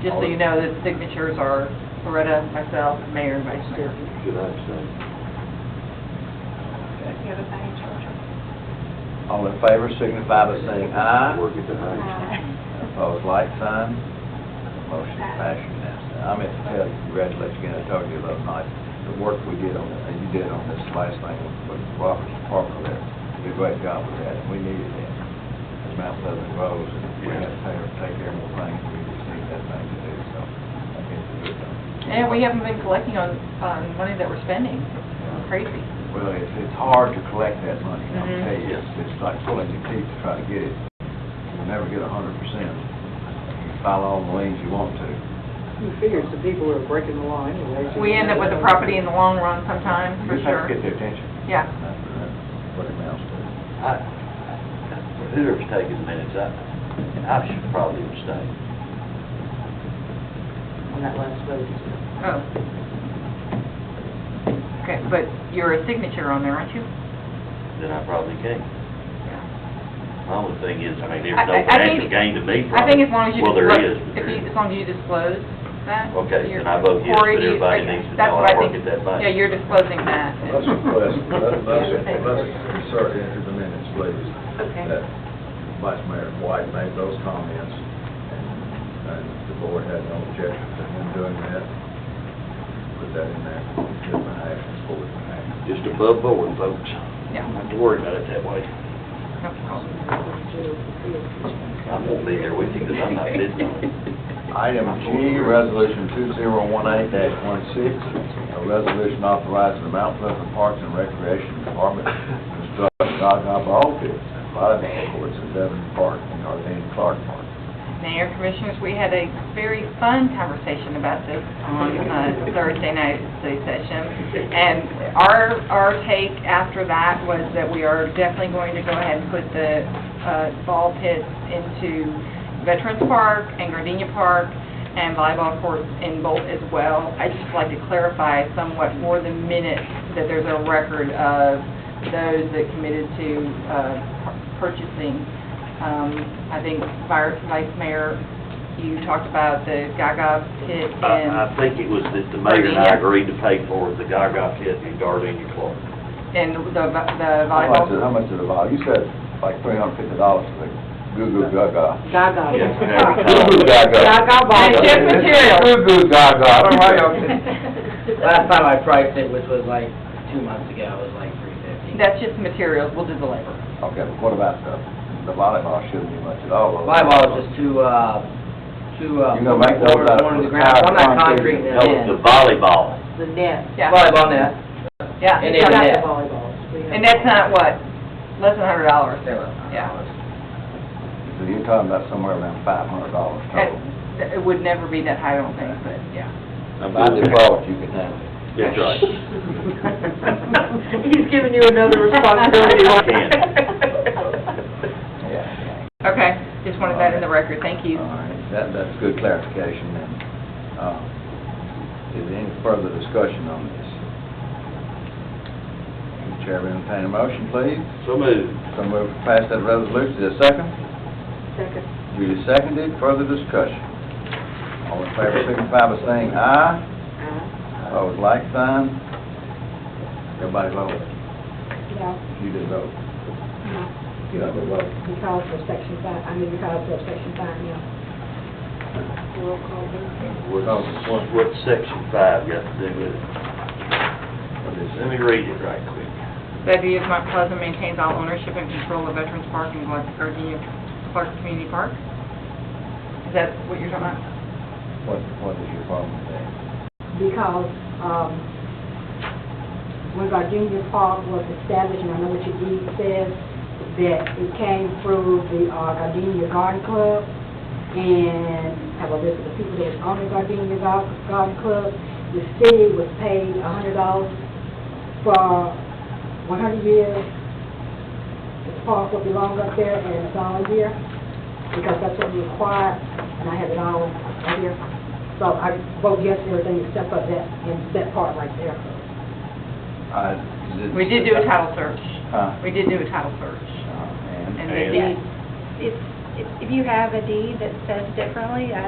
Just so you know, the signatures are Loretta, myself, mayor, and vice mayor. Should I abstain? You have a sign in charge. All in favor signify by saying aye. Work at the Uh, Heinz. Opposed, like sign. Motion passed unanimously. I meant to tell you, congratulations again, I told you last night, the work we did on, and you did on this last thing with with Robert's Parker there. You did a great job with that, and we needed that. As Mount Pleasant grows, and we had to take- take care of more things, we just need that thing to do, so I think it's a good thing. And we haven't been collecting on, on money that we're spending. Crazy. Well, it's, it's hard to collect that money, I'll Mhm. tell you, it's, it's like pulling your teeth to try to get it. You'll never get a hundred percent. You can file all the liens you want to. Who figures the people who are breaking the law anyways? We end up with a property in the long run sometimes, You for just have to get sure. their attention. Yeah. That's what it amounts to. I- Whoever's taking minutes, I, I should probably abstain. On that last vote. Oh. Okay, but you're a signature on there, aren't you? Then I probably can. My only thing is, I mean, I- there's I- no I financial think- gain to me from it. I think as long as you. Well, there disclose- is. but If there you, is. as long as you disclose that. Okay, you're- then I vote yes, Corey, but do you- everybody okay, needs to that's know what I I work think. at that bank. Yeah, you're disclosing that. Let's request, let's, let's let's insert into the minutes, please, Okay. that Vice Mayor White made those comments, and the board had no objection to him doing that. Put that in there, should have actions, board action. Just above board, folks. Yeah. Not to worry about it that way. I won't be there with you because I'm not bidding on it. Item G, Resolution 2018-16, a resolution authorizing the Mount Pleasant Parks and Recreation Department to construct Gaga ball pits and volleyball courts in Devon Park and Arlene Clark Park. Mayor, Commissioners, we had a very fun conversation about this on uh, Thursday night at the city session. And our, our take after that was that we are definitely going to go ahead and put the uh, ball pits into Veterans Park and Gardenia Park and volleyball courts in Bolt as well. I'd just like to clarify somewhat for the minutes that there's a record of those that committed to uh, pur- purchasing um, I think Vir- Vice Mayor, you talked about the Gaga pit Uh, I, and, I think it was that the mayor and Virginia. I agreed to pay for the Gaga pit and Gardenia Clark. and the vo- the How much, is- how volleyball. much is the volleyball? You said like $350 for the goo-goo gaga. Gaga. Yes, Gaga. there we go. Goo-goo gaga. Gaga And ball. just material. Goo-goo gaga. I don't know why y'all- Last time I priced it, which was like two months ago, it was like three fifty. That's just materials, we'll do the labor. Okay, but what about the, the volleyball shouldn't be much at all? Volleyball is just too, uh, too, uh. You know, make those out of One of the ground, I'm not concrete No, net. it's the volleyball. The net. Yeah, Volleyball net, yeah. and it's net. Volleyballs. We have- And that's not what, less than hundred dollars. They were- Yeah. So you're talking about somewhere around five hundred dollars total. It it would never be that high, I don't think, but, yeah. By default, you can have it. That's right. He's giving you another responsibility. Yeah. Okay, just wanted that in the record, thank you. All right, that, that's good clarification then. Uh, Is there any further discussion on this? Chair, will entertain a motion, please. So moved. So move to pass that resolution, is there a second? Second. Duly seconded, further discussion. All in favor, signify by saying aye. Opposed, like sign. Everybody vote. No, You did vote. no. You have a vote. You called for section five, I mean, you called for section five, yeah. Roll call vote. What's, what's section five got to do with it? Let me read it right quick. That is, Mount Pleasant maintains all ownership and control of Veterans Park and Glen- Gardenia Clark Community Park? Is that what you're talking about? What, what is your problem with that? Because, um, when our junior park was established, and I know what your deed says, that it came through the uh, Gardenia Garden Club, and have a list of the people that own the Gardenia Gar- Garden Club. The city was paid a hundred dollars for one hundred years. The park will belong up there, and it's all year, because that's what we acquired, and I have it all right here. So I vote yes to everything except for that, and that part right there. I We did do a title search. Huh? We did do a title search. Uh, and- And the And- deed If, if you have a deed that says differently, I